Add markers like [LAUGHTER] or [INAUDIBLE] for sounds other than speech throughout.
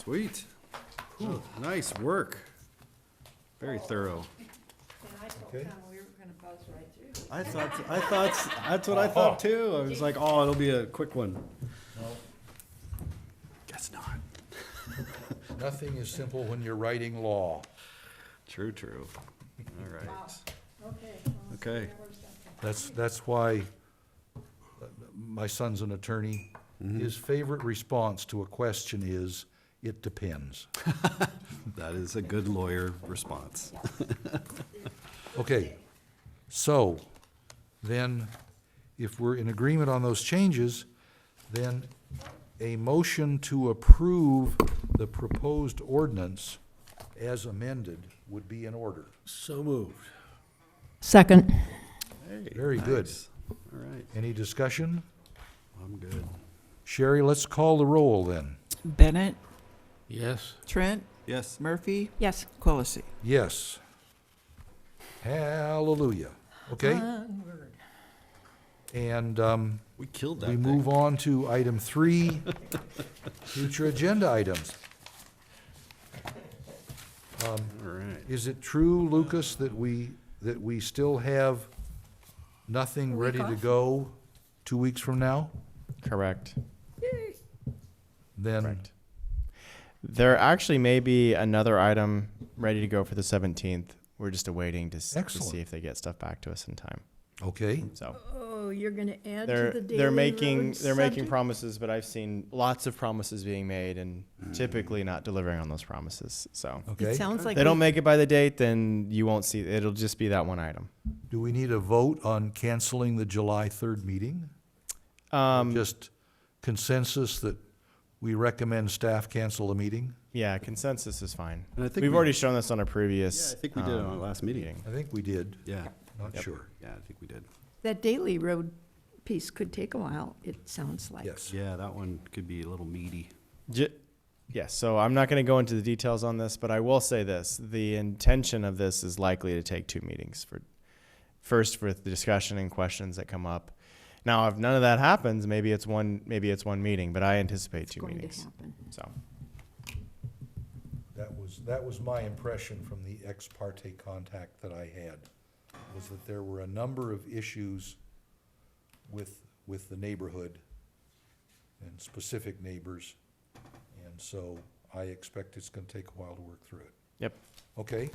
Sweet. Whew, Nice work. Very thorough. And I told Okay. Tom we were gonna buzz right through. I thought, I thought, that's what I thought too. I was like, oh, it'll be a quick one. Guess not. Nothing is simple when you're writing law. True, true. All right. Okay. well, so Okay. there was something. That's, that's why uh, my son's an attorney. His favorite response to a question is, "It depends." That is a good lawyer response. Okay, so then if we're in agreement on those changes, then a motion to approve the proposed ordinance as amended would be in order. So moved. Second. Very good. All right, Any discussion? I'm good. Sherry, let's call the roll then. Bennett, Yes. Trent, Yes, Murphy, Yes. Quillisi. Yes. Hallelujah. Okay, and, um, we killed that we thing. move on to item three, future agenda items. All right. Is it true, Lucas, that we, that we still have nothing ready to go two weeks from now? Correct. Hmm. Then, Correct. There actually may be another item ready to go for the 17th. We're just awaiting to, s- to Excellent. see if they get stuff back to us in time. okay, So Oh, you're gonna add they're they're making they're making promises, but I've seen lots of promises being made and Hmm. typically not delivering on those promises. So okay. sounds like they don't make it by the date, then you won't see. It'll just be that one item. Do we need a vote on canceling the July third meeting? Um, Just consensus that we recommend staff cancel the meeting? yeah, consensus is fine. And I think We've we- already shown this on a Yeah, previous. I think we did it on our um, last meeting. I think we did, Yeah, not sure. yeah, I think we did. That Daily Road piece could take a while, it sounds like. Yes, Yeah, that one could be a little meaty. J- yeah, so I'm not going to go into the details on this, but I will say this: the intention of this is likely to take two meetings. For first, for the discussion and questions that come up. Now, if none of that happens, maybe it's one, maybe it's one meeting, but I anticipate It's two going to meetings. happen. So, that was, that was my impression from the ex parte contact that I had, was that there were a number of issues with, with the neighborhood and specific neighbors, and so I expect it's gonna take a while to work through it. yep. Okay,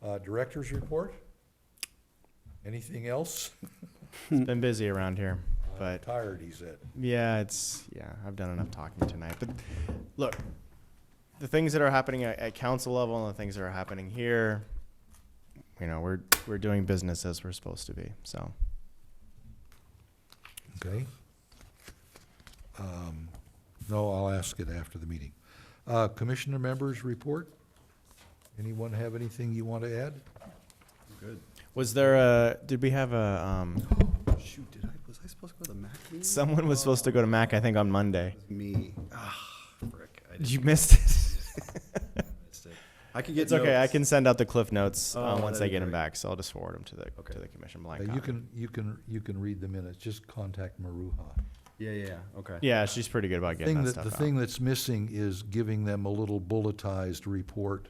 uh, director's report? Anything else? It's been busy around here, but Tired, he said. Yeah, it's yeah. I've done enough talking tonight. But look, the things that are happening at, at council level and the things that are happening here, you know, we're we're doing business as we're supposed to be. So Okay. Um, No, I'll ask it after the meeting. Uh, Commissioner members report? Anyone have anything you want to add? Good. was there a? Did we have a? Um, Shoot, did I, was I supposed to go to the MAC meeting? someone was supposed to go to Mac, I think, on Monday. Me. Ah, frick. I just You missed it. missed it. I can get It's okay. I notes. can send out the cliff notes uh, Oh, once that'd I be get them great. back. So I'll just forward them to the Okay. to the commission Uh, blank. You copy. can, you can, you can read the minutes, just contact Maruha. Yeah, yeah, yeah, okay. Yeah, she's pretty good about getting Thing that that, stuff the out. thing that's missing is giving them a little bulletized report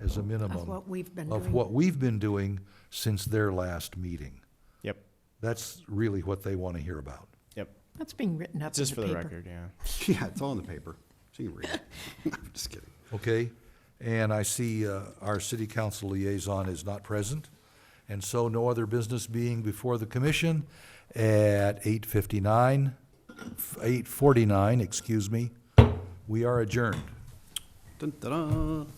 as a Of minimum what we've been of doing. what we've been doing since their last meeting. Yep. That's really what they want to hear about. Yep. That's being written up in Just the for the paper. record. Yeah. [LAUGHS] Yeah, it's all in the paper. So you can read it. [LAUGHS] I'm just kidding. Okay, and I see uh, our city council liaison is not present, and so no other business being before the commission at eight fifty-nine, eight forty-nine, excuse me, we are adjourned. Dun, dun, dun.